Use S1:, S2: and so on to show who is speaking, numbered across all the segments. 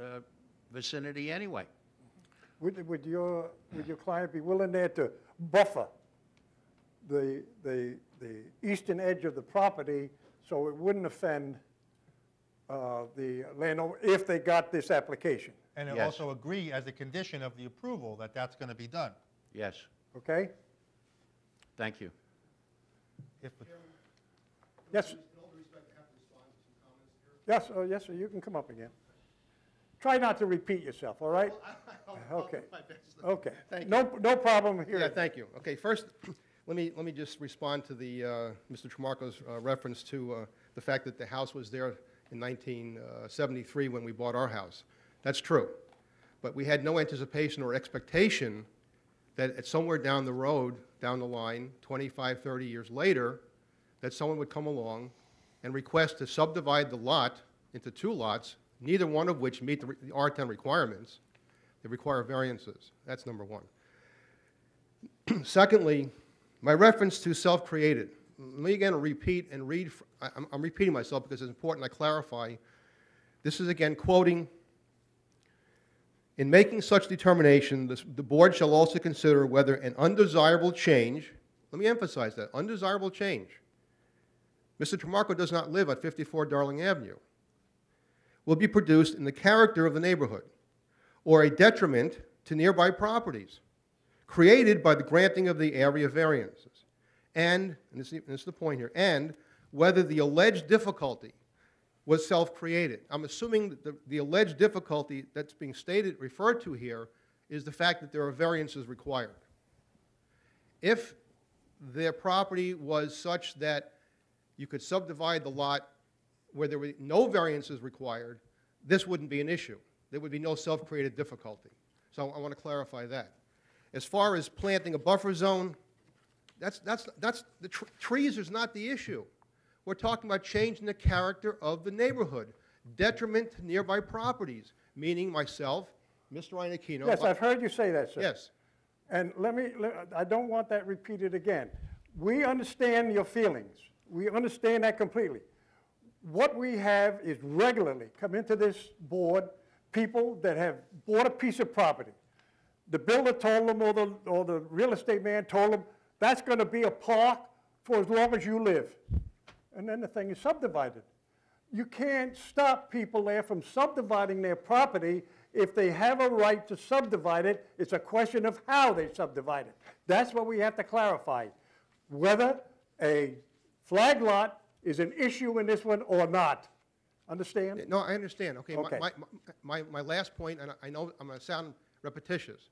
S1: uh, vicinity anyway.
S2: Would, would your, would your client be willing there to buffer the, the, the eastern edge of the property so it wouldn't offend uh, the landowner if they got this application,
S3: And
S1: Yes.
S3: also agree as a condition of the approval that that's going to be done.
S1: Yes,
S2: okay?
S1: thank you.
S3: If,
S2: Yes? Yes, oh, yes, sir, you can come up again. Try not to repeat yourself, all right? Okay. Okay.
S4: Thank you.
S2: No, no problem here.
S4: Yeah, thank you. Okay, first, let me, let me just respond to the, uh, Mr. Tramarko's uh, reference to uh, the fact that the house was there in 1973 when we bought our house. That's true. But we had no anticipation or expectation that at somewhere down the road, down the line, 25, 30 years later, that someone would come along and request to subdivide the lot into two lots, neither one of which meet the re- the R10 requirements. They require variances. That's number one. Secondly, my reference to self-created. Let me again repeat and read, fr- I- I'm I'm repeating myself because it's important I clarify. This is again quoting, "In making such determination, this- the board shall also consider whether an undesirable change," let me emphasize that, undesirable change. Mr. Tramarko does not live at 54 Darling Avenue. "Will be produced in the character of the neighborhood or a detriment to nearby properties." created by the granting of the area variances. And, and this, is- this is the point here, and whether the alleged difficulty was self-created. I'm assuming that the, the alleged difficulty that's being stated, referred to here, is the fact that there are variances required. If their property was such that you could subdivide the lot where there were no variances required, this wouldn't be an issue. There would be no self-created difficulty. So I want to clarify that. As far as planting a buffer zone, that's, that's, that's, the tr- trees is not the issue. We're talking about changing the character of the neighborhood, detriment to nearby properties, meaning myself, Mr. Ianacino.
S2: Yes, I've heard you say that, sir.
S4: Yes.
S2: And let me, let- I don't want that repeated again. We understand your feelings. We understand that completely. What we have is regularly come into this board, people that have bought a piece of property. The builder told them, or the, or the real estate man told them, that's going to be a park for as long as you live. And then the thing is subdivided. You can't stop people there from subdividing their property if they have a right to subdivide it. It's a question of how they subdivide it. That's what we have to clarify, whether a flag lot is an issue in this one or not. Understand?
S4: No, I understand, okay. my-
S2: Okay.
S4: My, my, my last point, and I- I know I'm going to sound repetitious.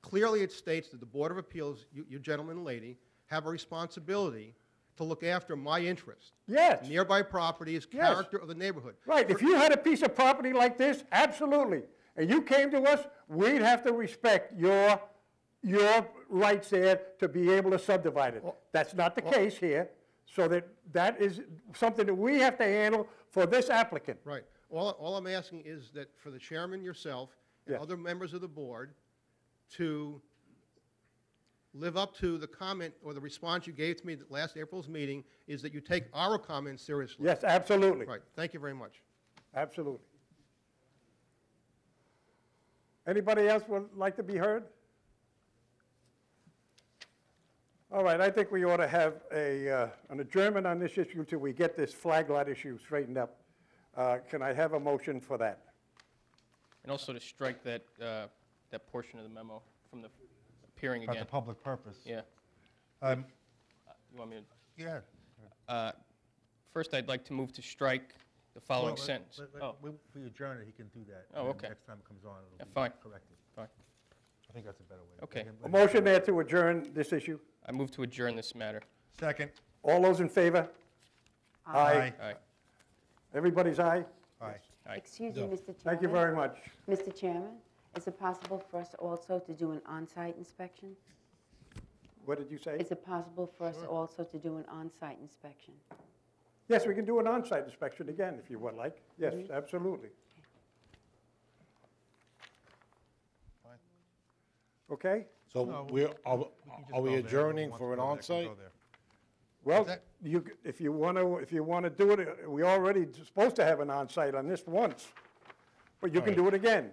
S4: Clearly, it states that the Board of Appeals, you you gentlemen and lady, have a responsibility to look after my interest.
S2: Yes.
S4: Nearby properties,
S2: Yes.
S4: character of the neighborhood.
S2: Right, if you had a piece of property like this, absolutely, and you came to us, we'd have to respect your, your rights there to be able to subdivide it. That's not the case here, so that, that is something that we have to handle for this applicant.
S4: Right. All, all I'm asking is that for the chairman, yourself, and
S2: Yes.
S4: other members of the board to live up to the comment or the response you gave to me at last April's meeting is that you take our comments seriously.
S2: Yes, absolutely,
S4: Right. Thank you very much.
S2: absolutely. Anybody else would like to be heard? All right, I think we ought to have a, uh, an adjournment on this issue until we get this flag lot issue straightened up. Uh, Can I have a motion for that?
S5: And also to strike that, uh, that portion of the memo from the appearing
S3: about
S5: again.
S3: the public purpose.
S5: Yeah.
S3: Um,
S5: You want me to?
S3: Yeah.
S5: First, I'd like to move to strike the
S3: Well,
S5: following
S3: let-
S5: sentence.
S3: let- let-
S5: Oh,
S3: we- If we adjourn it, he can do that.
S5: Oh,
S3: and
S5: okay.
S3: Next time it comes on,
S5: Yeah,
S3: it'll
S5: fine.
S3: be corrected.
S5: fine.
S3: I think that's a better way.
S5: Okay.
S3: Let him-
S2: A
S3: let him-
S2: motion there to adjourn this issue?
S5: I move to adjourn this matter.
S3: Second.
S2: All those in favor?
S5: Aye.
S2: Everybody's aye?
S3: Aye.
S6: Excuse me, Mr. Chairman.
S2: Thank you very much.
S6: Mr. Chairman, is it possible for us also to do an on-site inspection?
S2: What did you say?
S6: Is it possible for us also to do an on-site inspection?
S2: Yes, we can do an on-site inspection again, if you would like. Yes, absolutely. Okay?
S7: So we're, are
S3: can just
S7: are
S3: go
S7: we
S3: there.
S7: adjourning
S3: Everyone
S7: for an
S3: wants to go there, can
S7: onsite?
S3: go there.
S2: Well,
S3: that-
S2: you, c- if you want to, if you want to do it, uh, we already supposed to have an on-site on this once. But you can do it again.